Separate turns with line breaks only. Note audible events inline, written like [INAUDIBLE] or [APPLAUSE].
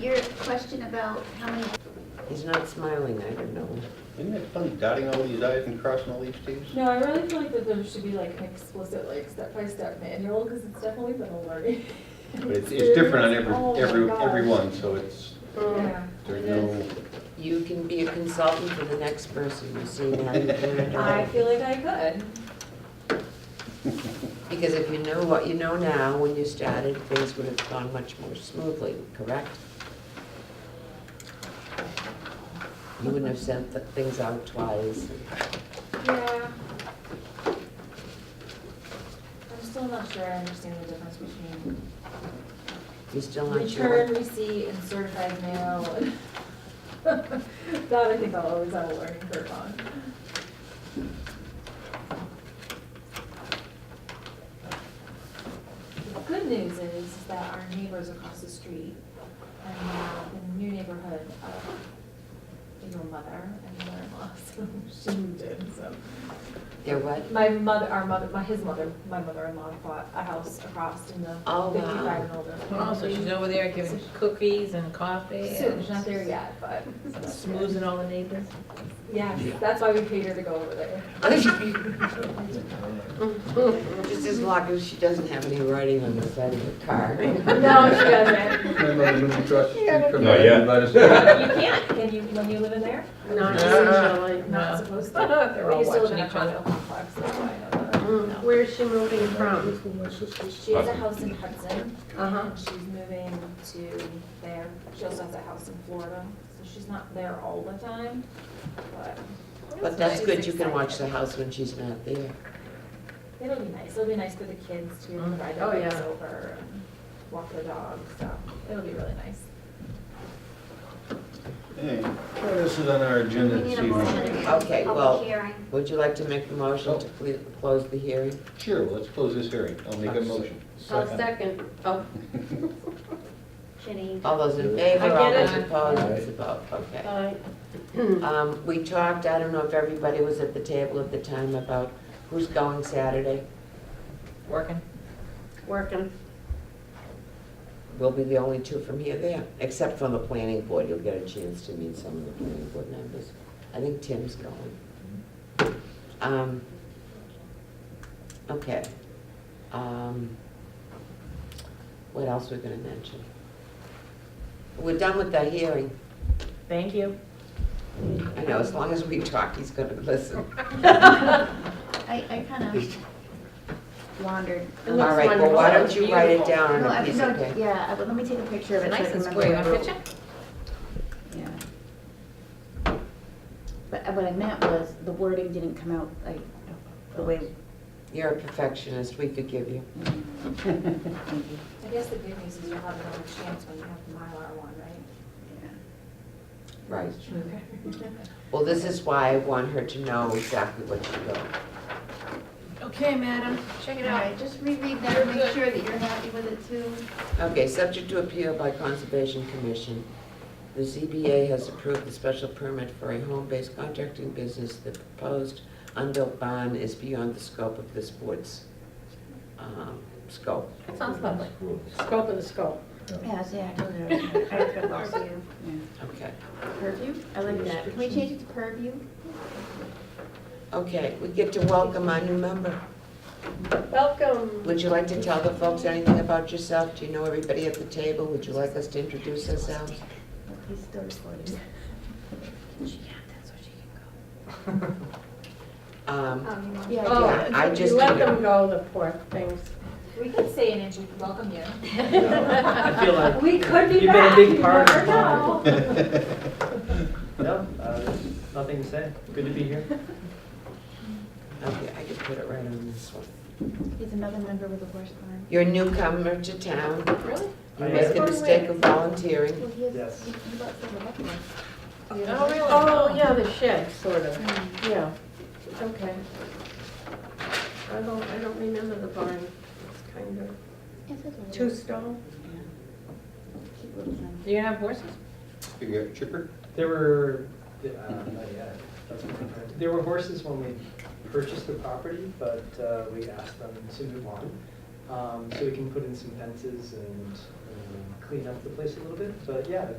Your question about how many,
He's not smiling, I don't know.
Isn't it fun dotting all these i's and crossing all these t's?
No, I really feel like that there should be like an explicit, like step-by-step manual, because it's definitely been a learning.
[LAUGHS] But it's, it's different on
experience.
every, every,
Oh my gosh.
every one, so it's,
Yeah.
there's
it
no,
You can be a consultant for the next person you see now. you
is.
can.
I feel like I could.
Because if you know what you know now, when you started, things would have gone much more smoothly, correct? You wouldn't have sent the things out twice.
Yeah. I'm still not sure I understand the difference between
You're still not
return,
sure.
receipt, and certified mail. [LAUGHS] and- That I think I'll always have a learning curve on. The good news is is that our neighbors across the street and uh, the new neighborhood of your mother and mother-in-law, [LAUGHS] so she moved in, so.
They're
[LAUGHS]
what?
My mother, our mother, my, his mother, my mother-in-law bought a house across in the
Oh, wow.
fifty-five and older.
Oh, so she's over there giving cookies and coffee
Soon,
and
she's not there yet, but.
smoozing all the
[LAUGHS]
neighbors.
Yes, that's why we paid her to go over there.
Just as long as she doesn't have any writing on the side of her car.
No, she doesn't.
My mother lived across the street from
Not
my
yet.
[LAUGHS]
advisor's.
You can't, can you, when you live in there?
No,
Not
no.
supposed to.
They're all
You still live
watching
in a
each other.
condo complex, that's why I know that.
Where is she moving from?
That's where my sister's.
She has a house in Hudson,
Uh-huh.
and she's moving to there. She also has a house in Florida, so she's not there all the time, but.
But that's
She's
good, you can watch the
excited.
house when she's not there.
It'll be nice, it'll be nice for the kids to be able to ride
Oh,
their bikes
yeah.
over and walk their dogs, so it'll be really nice.
hey, well, this is on our agenda
we
this
need a motion
evening.
to
Okay,
have a
well-
public hearing.
Would you like to make the motion to cle- close the hearing?
Sure, well, let's close this hearing. I'll make a motion.
I'll second. Oh,
Jenny,
All those in favor,
I
all
get
those
it.
opposed, it's a vote, okay.
aye.
Um, we talked, I don't know if everybody was at the table at the time, about who's going Saturday.
Working.
Working.
We'll be the only two from here there, except for the planning board, you'll get a chance to meet some of the planning board members. I think Tim's going. Um, okay. Um, what else we're gonna mention? We're done with the hearing.
[LAUGHS]
Thank you.
I know, as long as we talk, he's
[LAUGHS]
gonna listen.
I, I kind
[LAUGHS]
of wandered.
It
All
looks
right, well, why don't
wonderful.
you write it
Beautiful.
down
No,
on
I
a piece of
no,
paper?
yeah, I- but let me take a picture of it. so I
Nice
can
and
remember
square,
the
a
rule.
picture?
Yeah. But uh, what I meant was, the wording didn't come out like, the way.
You're a perfectionist, we forgive you.
Thank you.
I guess the good news is you'll have another chance when you have the Mylar one, right?
Yeah.
Right.
Okay.
Well, this is why I want her to know exactly what she wrote.
Okay, madam, check
All right, just reread that, and make sure that you're happy with it too.
Okay, subject to appeal by Conservation Commission, the ZBA has approved the special permit for a home-based contracting business. The proposed unbuilt barn is beyond the scope of this board's um, scope.
That sounds lovely.
Scope of the scope.
Yeah, see, I told you, [LAUGHS] I was gonna lost you.
Okay,
Purview? I like that. Can we change it to purview?
okay, we get to welcome our new member.
Welcome.
Would you like to tell the folks anything about yourself? Do you know everybody at the table? Would you like us to introduce ourselves?
He's still recording.
Um,
Um, you
Yeah,
want-
Oh,
Yeah, I just-
You let them go, the poor things.
We could say an intro, welcome you.
[LAUGHS] I
[LAUGHS]
feel like
We could be
You've been a
back,
big
you
part
never
of
know.
[LAUGHS]
No, uh, there's nothing to say. Good to be here.
okay, I can put it right on this one.
He's another member with a horse barn.
You're a newcomer to town.
Really?
You
I
make
am.
the mistake of volunteering.
Well, he has,
Yes.
he he bought some of that.
Oh, really?
Oh, yeah, the shed, sort of, yeah, okay. I don't, I don't remember the barn, it's kind of two stone.
Do you have horses?
You got a chipper?
There were, uh, not yet. There were horses when we purchased the property, but uh, we asked them to move on. Um, So we can put in some fences and um, clean up the place a little bit, but yeah, I think